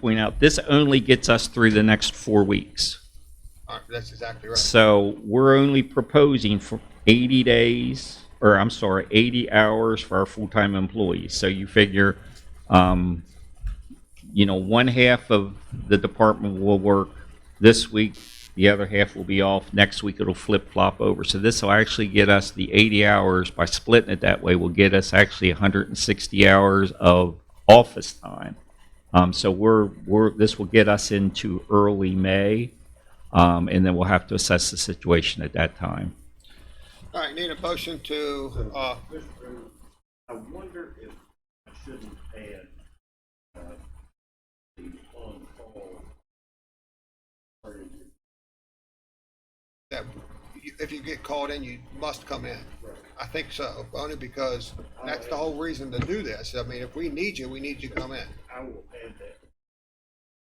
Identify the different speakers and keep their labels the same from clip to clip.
Speaker 1: point out, this only gets us through the next four weeks.
Speaker 2: Uh, That's exactly right.
Speaker 1: So we're only proposing for 80 days, or I'm sorry, 80 hours for our full-time employees. So you figure, um, you know, one half of the department will work this week, the other half will be off, next week it'll flip-flop over. So this will actually get us the 80 hours, by splitting it that way, will get us actually 160 hours of office time. Um, so we're, we're, this will get us into early May. Um, and then we'll have to assess the situation at that time.
Speaker 2: All right, need a motion to, uh,
Speaker 3: Mr. President, I wonder if I shouldn't add, uh, the on-call. part of it.
Speaker 2: that you- if you get called in, you must come in. I think so, only because that's the whole reason to do this. I mean, if we need you, we need you to come in.
Speaker 3: I will add that.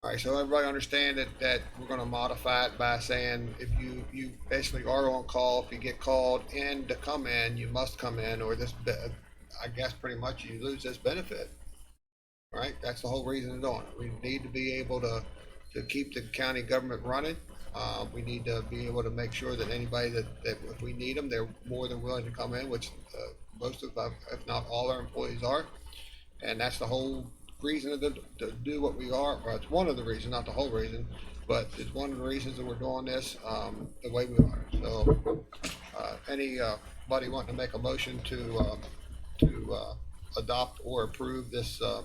Speaker 2: All right, so everybody understand that, that we're gonna modify it by saying if you, you basically are on call, if you get called in to come in, you must come in, or this, be- I guess pretty much you lose this benefit. All Right, that's the whole reason of doing it. We need to be able to, to keep the county government running. Uh, we need to be able to make sure that anybody that, that if we need them, they're more than willing to come in, which, uh, most of, our- if not all our employees are. And that's the whole reason to, to do what we are, or it's one of the reasons, not the whole reason, but it's one of the reasons that we're doing this, um, the way we are. So, uh, any, uh, buddy wanting to make a motion to, uh, to, uh, adopt or approve this, uh,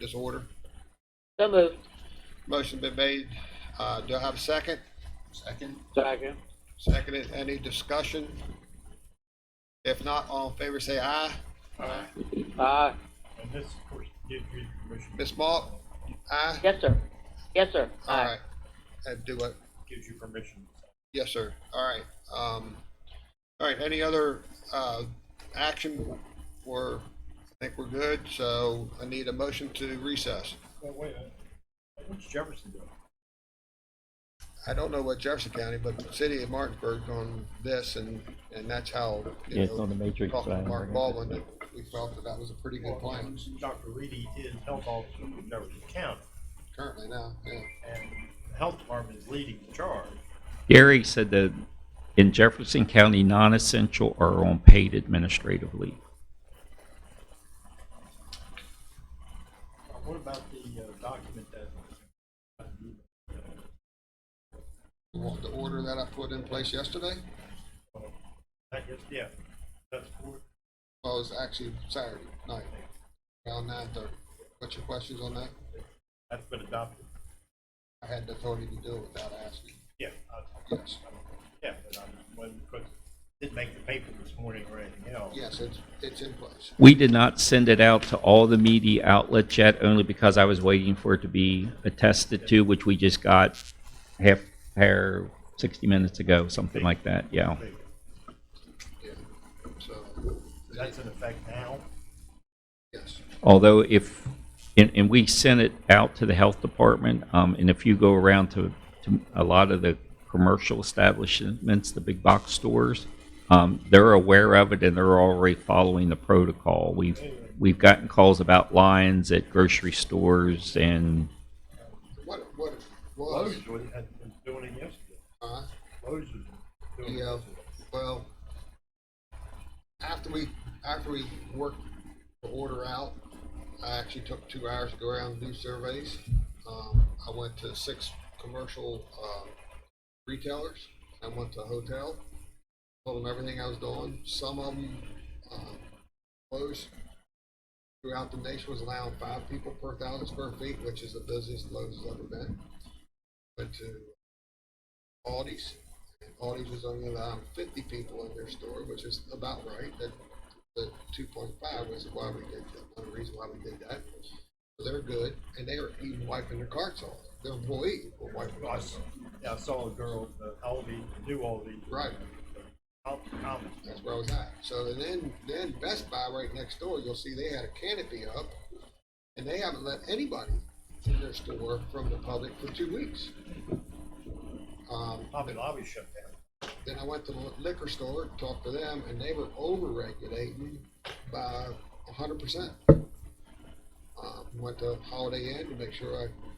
Speaker 2: this order?
Speaker 4: So moved.
Speaker 2: Motion been made. Uh, do I have a second?
Speaker 5: Second?
Speaker 4: Second.
Speaker 2: Seconded. Any discussion? If not, all in favor say aye.
Speaker 4: Aye.
Speaker 3: And this, of course, gives you the permission,
Speaker 2: Ms. Malt, aye?
Speaker 4: Yes, sir. Yes, sir.
Speaker 2: All right. And do what?
Speaker 3: gives you permission.
Speaker 2: Yes, sir. All right. Um, all right, any other, uh, action? We're, I think we're good, so I need a motion to recess.
Speaker 3: Well, wait, uh, what's Jefferson doing?
Speaker 2: I don't know what Jefferson County, but the city of Martinsburg on this and, and that's how, you
Speaker 6: Yeah, it's on
Speaker 2: know,
Speaker 6: the matrix.
Speaker 2: talking to
Speaker 6: plan.
Speaker 2: Mark Baldwin, that we felt that that was a pretty good plan
Speaker 3: Dr. Reedy is health officer for Jefferson County,
Speaker 2: currently now, yeah.
Speaker 3: and the health department is leading the charge.
Speaker 1: Gary said that in Jefferson County, non-essential are on paid administrative leave.
Speaker 3: Uh, What about the uh, document that? uh,
Speaker 2: You want the order that I put in place yesterday?
Speaker 3: I guess, yeah, that's for,
Speaker 2: Well, Oh, it was actually Saturday night, around nine thirty. What's your questions on that?
Speaker 3: that's been adopted.
Speaker 2: I had the authority to do it without asking.
Speaker 3: Yeah, I-
Speaker 2: Yes,
Speaker 3: yeah, but I wasn't, because it didn't make the paper this morning or anything else.
Speaker 2: yes, it's, it's in place.
Speaker 1: We did not send it out to all the media outlets yet, only because I was waiting for it to be attested to, which we just got half, hair, 60 minutes ago, something like that, yeah.
Speaker 2: Yeah, so,
Speaker 3: That's in effect now.
Speaker 2: yes.
Speaker 1: Although if, and, and we sent it out to the health department, um, and if you go around to, to a lot of the commercial establishments, the big box stores, um, they're aware of it and they're already following the protocol. We've, we've gotten calls about lines at grocery stores and
Speaker 2: What, what it was,
Speaker 3: Lowe's was- had been doing it yesterday.
Speaker 2: uh,
Speaker 3: Lowe's was doing it
Speaker 2: yeah,
Speaker 3: yesterday.
Speaker 2: well, after we, after we worked the order out, I actually took two hours to go around and do surveys. Um, I went to six commercial, um, retailers, I went to a hotel, told them everything I was doing, some of them, um, closed. Throughout the nation was allowing five people per thousand square feet, which is the busiest Lowe's has ever been. Went to Aldi's, and Aldi's was only allowing fifty people in their store, which is about right, that, the two point five was why we did, that, one reason why we did that. They're good, and they were even wiping their carts off, their employees were wiping their
Speaker 3: I
Speaker 2: carts
Speaker 3: s-
Speaker 2: off.
Speaker 3: yeah, I saw a girl, uh, Aldi, new Aldi.
Speaker 2: Right.
Speaker 3: Out, out.
Speaker 2: That's where I was at. So and then, then Best Buy right next door, you'll see they had a canopy up, and they haven't let anybody in their store from the public for two weeks. Um,
Speaker 3: Hobby Lobby shut down.
Speaker 2: then I went to the liquor store, talked to them, and they were over-regulating by hundred percent. Um, went to Holiday Inn to make sure I